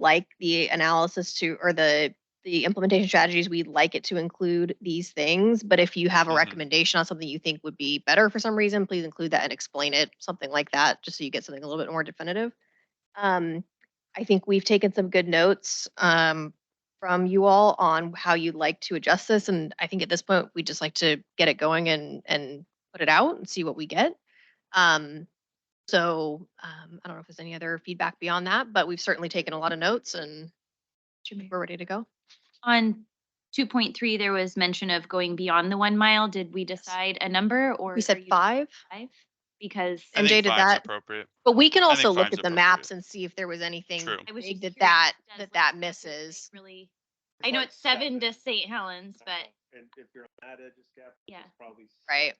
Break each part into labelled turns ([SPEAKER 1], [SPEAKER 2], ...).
[SPEAKER 1] like the analysis to, or the, the implementation strategies, we'd like it to include these things. But if you have a
[SPEAKER 2] Mhm.
[SPEAKER 1] recommendation on something you think would be better for some reason, please include that and explain it, something like that, just so you get something a little bit more definitive. Um, I think we've taken some good notes, um, from you all on how you'd like to adjust this. And I think at this point, we'd just like to get it going and, and put it out and see what we get. Um, so, um, I don't know if there's any other feedback beyond that, but we've certainly taken a lot of notes and we're ready to go.
[SPEAKER 3] On two point three, there was mention of going beyond the one mile. Did we decide a number or?
[SPEAKER 1] We
[SPEAKER 3] are
[SPEAKER 1] said
[SPEAKER 3] you-
[SPEAKER 1] five,
[SPEAKER 3] Five? Because
[SPEAKER 2] I
[SPEAKER 1] And
[SPEAKER 2] think
[SPEAKER 1] Jada,
[SPEAKER 2] five's
[SPEAKER 1] that-
[SPEAKER 2] Appropriate.
[SPEAKER 1] but we can
[SPEAKER 2] I
[SPEAKER 1] also
[SPEAKER 2] think
[SPEAKER 1] look
[SPEAKER 2] five's
[SPEAKER 1] at the
[SPEAKER 2] appropriate.
[SPEAKER 1] maps and see if there was anything
[SPEAKER 2] True.
[SPEAKER 3] I was
[SPEAKER 1] big
[SPEAKER 3] just
[SPEAKER 1] that that,
[SPEAKER 3] curious, does
[SPEAKER 1] that
[SPEAKER 3] look
[SPEAKER 1] that
[SPEAKER 3] like
[SPEAKER 1] misses.
[SPEAKER 3] Really, I know it's seven to St. Helens, but
[SPEAKER 4] And if you're on that edge of Scapa.
[SPEAKER 3] Yeah.
[SPEAKER 4] it's Probably. s-
[SPEAKER 1] Right,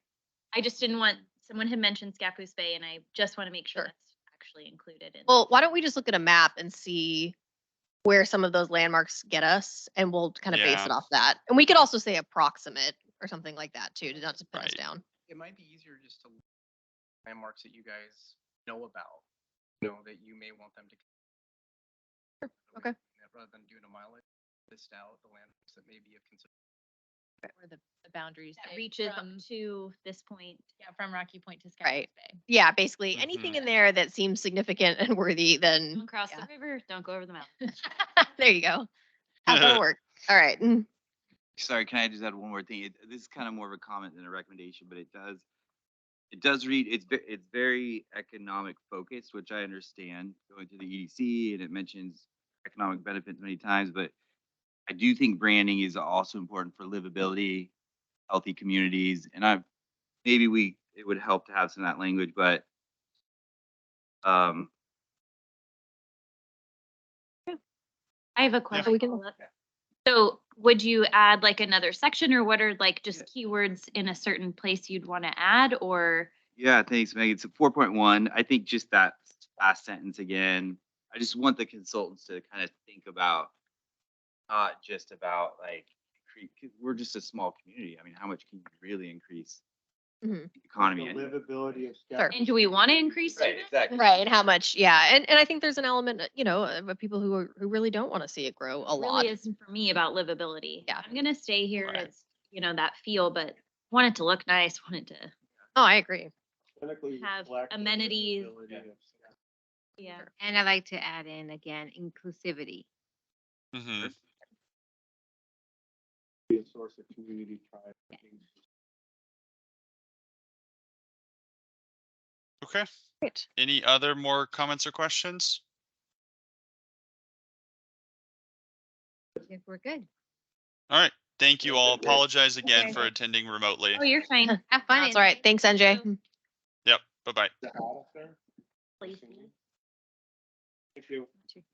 [SPEAKER 3] I just didn't want, someone had mentioned Scappoose Bay and I just want to make sure
[SPEAKER 1] Sure.
[SPEAKER 3] that's actually included in.
[SPEAKER 1] well, why don't we just look at a map and see where some of those landmarks get us and we'll kind of base
[SPEAKER 2] Yeah.
[SPEAKER 1] it off that. And we could also say approximate or something like that too, to not to put us
[SPEAKER 2] Right.
[SPEAKER 1] down.
[SPEAKER 5] it might be easier just to look at landmarks that you guys know about, you know, that you may want them to.
[SPEAKER 1] okay.
[SPEAKER 5] Rather than doing a mileage, list out the landmarks that may be of concern.
[SPEAKER 6] where the, the boundaries
[SPEAKER 3] That
[SPEAKER 6] say
[SPEAKER 3] reaches up
[SPEAKER 6] from-
[SPEAKER 3] to this point.
[SPEAKER 6] yeah, from Rocky Point to Scotts
[SPEAKER 1] Right.
[SPEAKER 6] Bay.
[SPEAKER 1] Yeah, basically anything
[SPEAKER 2] Mm-hmm.
[SPEAKER 1] in there that seems significant and worthy,
[SPEAKER 3] Don't
[SPEAKER 1] then
[SPEAKER 3] cross the
[SPEAKER 1] yeah.
[SPEAKER 3] river, don't go over the mountain.
[SPEAKER 1] there you go. How's that work? All right. mm,
[SPEAKER 7] Sorry, can I just add one more thing? It- This is kind of more of a comment than a recommendation, but it does, it does read, it's, ve- it's very economic focused, which I understand, going through the EDC, and it mentions economic benefits many times, but I do think branding is also important for livability, healthy communities, and I, maybe we, it would help to have some of that language, but um,
[SPEAKER 3] I have a
[SPEAKER 1] we
[SPEAKER 3] question.
[SPEAKER 1] can
[SPEAKER 3] follow-up. So would you add like another section or what are like just keywords in a certain place you'd want to add or?
[SPEAKER 7] Yeah, thanks, Meg. It's a four point one. I think just that last sentence again. I just want the consultants to kind of think about not just about like cre- 'cause we're just a small community. I mean, how much can you really increase
[SPEAKER 3] Mm-hmm.
[SPEAKER 1] Mhm.
[SPEAKER 7] the economy?
[SPEAKER 4] The
[SPEAKER 7] And-
[SPEAKER 4] livability of
[SPEAKER 1] Sure.
[SPEAKER 4] Scapa.
[SPEAKER 3] And do we want to increase
[SPEAKER 7] Right,
[SPEAKER 3] service?
[SPEAKER 7] exactly.
[SPEAKER 1] Right, and how much? Yeah, and and I think there's an element, uh, you know, of of people who are, who really don't want to see it grow a
[SPEAKER 3] It
[SPEAKER 1] lot.
[SPEAKER 3] Really isn't for me about livability.
[SPEAKER 1] Yeah.
[SPEAKER 3] I'm gonna stay here.
[SPEAKER 2] Right.
[SPEAKER 3] It's, you know, that feel, but want it to look nice, want it to,
[SPEAKER 1] Oh, I agree.
[SPEAKER 4] Clinically
[SPEAKER 3] Have
[SPEAKER 4] reflect the
[SPEAKER 3] amenities.
[SPEAKER 4] livability of Scapa.
[SPEAKER 3] yeah.
[SPEAKER 8] And I like to add in again, inclusivity.
[SPEAKER 2] Mhm.
[SPEAKER 4] Be a source of community pride.
[SPEAKER 2] Okay.
[SPEAKER 1] Great.
[SPEAKER 2] Any other more comments or questions?
[SPEAKER 8] I think we're good.
[SPEAKER 2] All right. Thank you
[SPEAKER 4] Yeah,
[SPEAKER 2] all.
[SPEAKER 4] good day.
[SPEAKER 2] Apologize again
[SPEAKER 3] Okay.
[SPEAKER 2] for attending remotely.
[SPEAKER 3] Oh, you're fine.
[SPEAKER 8] Have fun.
[SPEAKER 1] That's all right. Thanks, NJ.
[SPEAKER 3] you.
[SPEAKER 2] Yep. Bye bye.
[SPEAKER 4] Is that out of there?
[SPEAKER 3] Please.
[SPEAKER 4] Thank you.